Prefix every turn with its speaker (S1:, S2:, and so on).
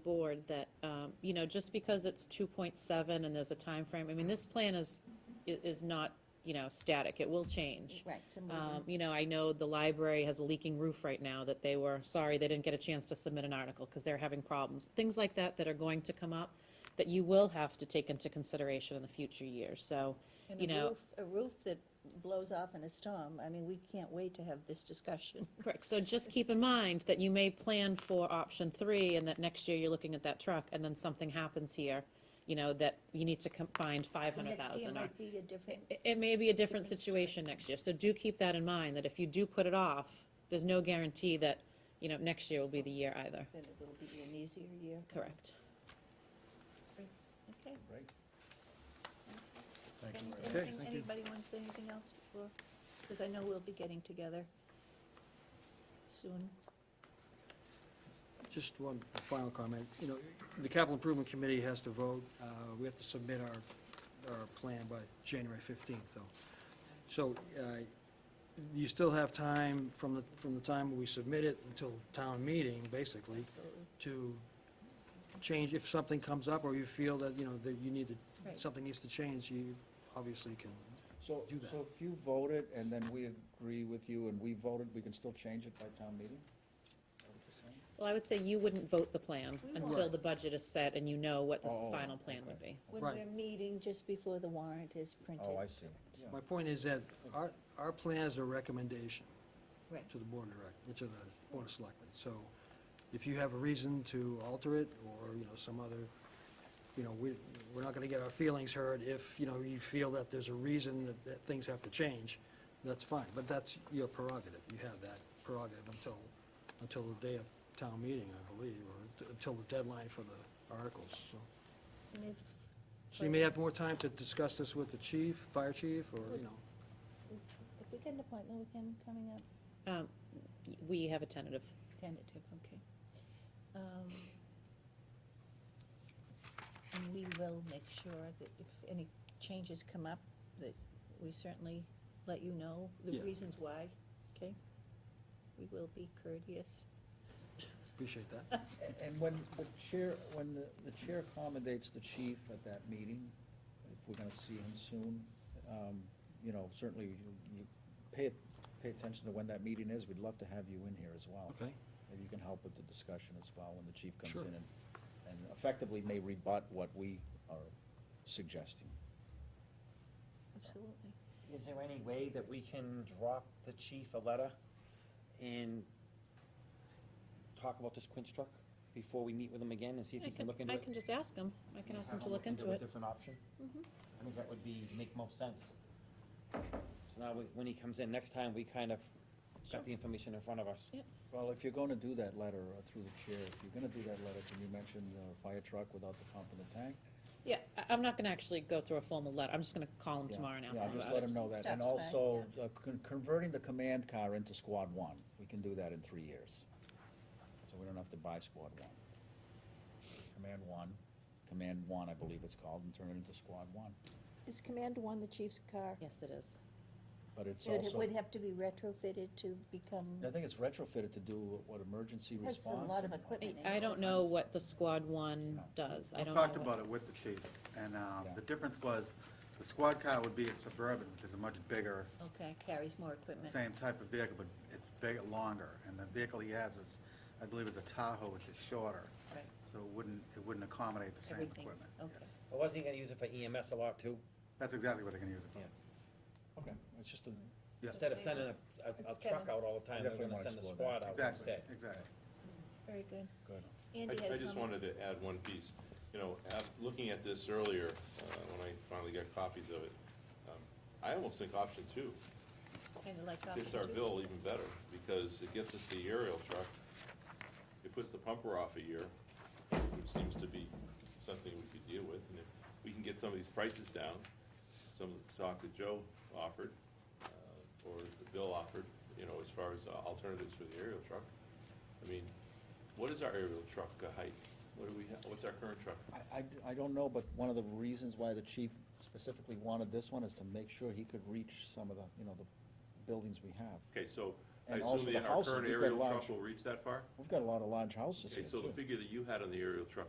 S1: board that, um, you know, just because it's two point seven and there's a time frame. I mean, this plan is, i- is not, you know, static, it will change.
S2: Right, to move
S1: Um,
S2: in.
S1: you know, I know the library has a leaking roof right now that they were, sorry, they didn't get a chance to submit an article because they're having problems. Things like that that are going to come up that you will have to take into consideration in the future years, so,
S2: And
S1: you
S2: a
S1: know.
S2: roof, a roof that blows off in a storm, I mean, we can't wait to have this discussion.
S1: Correct, so just keep in mind that you may plan for option three and that next year you're looking at that truck and then something happens here, you know, that you need to com- find five
S2: So
S1: hundred
S2: Next year
S1: thousand or.
S2: might be a different.
S1: It- It may be a different situation next year, so do keep that in mind, that if you do put it off, there's no guarantee that, you know, next year will be the year either.
S2: Then it will be an easier year.
S1: Correct.
S2: Okay.
S3: Right.
S2: Any-
S3: Thank you.
S2: Anything, anybody want to say anything else before? Because I know we'll be getting together soon.
S4: Just one final comment. You know, the capital improvement committee has to vote. Uh, We have to submit our, our plan by January 15th, though. So uh, you still have time from the, from the time we submit it until town meeting, basically, to change, if something comes up or you feel that, you know, that you need to,
S2: Right.
S4: something needs to change, you obviously can.
S3: So,
S4: Do that.
S3: so if you vote it and then we agree with you and we voted, we can still change it by town meeting? Is that what you're saying?
S1: Well, I would say you wouldn't vote the plan
S2: We won't.
S1: until the budget is set and you know what the
S3: Oh,
S1: final plan
S3: okay.
S1: would be.
S2: When
S4: Right.
S2: we're meeting just before the warrant is printed.
S3: Oh, I see. Yeah.
S4: My point is that our, our plan is a recommendation.
S2: Right.
S4: to the board of direct, uh, to the board of selectmen. So if you have a reason to alter it, or, you know, some other, you know, we, we're not gonna get our feelings hurt if, you know, you feel that there's a reason that, that things have to change, that's fine, but that's your prerogative, you have that prerogative until, until the day of town meeting, I believe, or t- until the deadline for the articles, so.
S2: And if
S4: So you may have more time to discuss this with the chief, fire chief, or, you know.
S2: If we get an appointment with him coming up,
S1: Um, y- We have a tentative.
S2: tentative, okay. Um, And we will make sure that if any changes come up, that we certainly let you know the
S4: Yeah.
S2: reasons why, okay? We will be courteous.
S4: Appreciate that.
S3: A- And when the chair, when the, the chair accommodates the chief at that meeting, if we're gonna see him soon, um, you know, certainly you, you pay, pay attention to when that meeting is. We'd love to have you in here as well.
S4: Okay.
S3: Maybe you can help with the discussion as well when the chief comes
S4: Sure.
S3: in and, and effectively may rebut what we are suggesting.
S2: Absolutely.
S5: Is there any way that we can drop the chief a letter and talk about this Quince truck before we meet with him again and see if
S1: I
S5: he can
S1: can,
S5: look into
S1: I
S5: it?
S1: can just ask him. I can ask him
S5: Have
S1: to
S5: him
S1: look into it. Mm-hmm.
S5: a different option? I think that would be, make most sense. So now, we- when he comes in next time, we kind of
S1: Sure.
S5: got the information in front of us.
S1: Yep.
S3: Well, if you're gonna do that letter uh, through the chair, if you're gonna do that letter, can you mention the fire truck without the pump in the tank?
S1: Yeah, I, I'm not gonna actually go through a formal letter. I'm just gonna call him
S3: Yeah,
S1: tomorrow and ask
S3: yeah,
S1: him
S3: Just
S1: about
S3: let
S1: it.
S3: him know that, and
S2: Steps back,
S3: also uh, con- converting the command car into squad one, we can do that in three years. So we don't have to buy squad one. Command one, command one, I believe it's called, and turn it into squad one,
S2: Is Command One the chief's car?
S1: Yes, it is.
S3: but it's
S2: It
S3: also,
S2: would have to be retrofitted to become,
S3: I think it's retrofitted to do what, emergency
S2: has a
S3: response?
S2: lot of
S3: and-
S1: I,
S2: equipment. in
S1: I
S2: it.
S1: don't know what the squad one does. I
S6: I
S1: don't know.
S6: talked
S1: what-
S6: about it with the chief, and uh,
S3: Yeah.
S6: the difference was, the squad car would be a Suburban, which is a much bigger,
S2: Okay, carries more equipment.
S6: same type of vehicle, but it's bigger, longer, and the vehicle he has is, I believe is a Tahoe, which is shorter,
S2: Right,
S6: so it wouldn't, it wouldn't accommodate the same
S2: Everything,
S6: equipment.
S2: okay.
S6: yes.
S5: But wasn't he gonna use it for EMS a lot too?
S6: That's exactly what they're gonna use it for.
S5: Yeah.
S3: Okay, it's just a,
S6: Yeah.
S5: Instead of sending a, a- a
S2: It's
S5: truck
S2: Kevin.
S5: out all the time, they're
S3: Definitely wanna
S5: gonna send the
S3: explore that.
S5: squad out
S6: Exactly,
S5: instead.
S6: exactly.
S2: Very good.
S3: good.
S2: Andy had
S7: I, I
S2: a
S7: just
S2: comment.
S7: wanted to add one piece. You know, av- looking at this earlier, uh, when I finally got copies of it, um, I almost think option two
S2: Kind of like
S7: fits
S2: option
S7: our
S2: two.
S7: bill even better, because it gets us the aerial truck, it puts the pumper off a year, which seems to be something we could deal with, and if we can get some of these prices down, some of the talk that Joe offered, uh, or the bill offered, you know, as far as uh, alternatives for the aerial truck, I mean, what is our aerial truck uh, height? What do we, ha- what's our current truck?
S3: I, I, I don't know, but one of the reasons why the chief specifically wanted this one is to make sure he could reach some of the, you know, the buildings we have.
S7: Okay, so I
S3: and also
S7: assume
S3: the
S7: that our
S3: houses,
S7: current
S3: we've got
S7: aerial
S3: large,
S7: truck will reach that far?
S3: we've got a lot of large houses here
S7: Okay,
S3: too.
S7: so the figure that you had on the aerial truck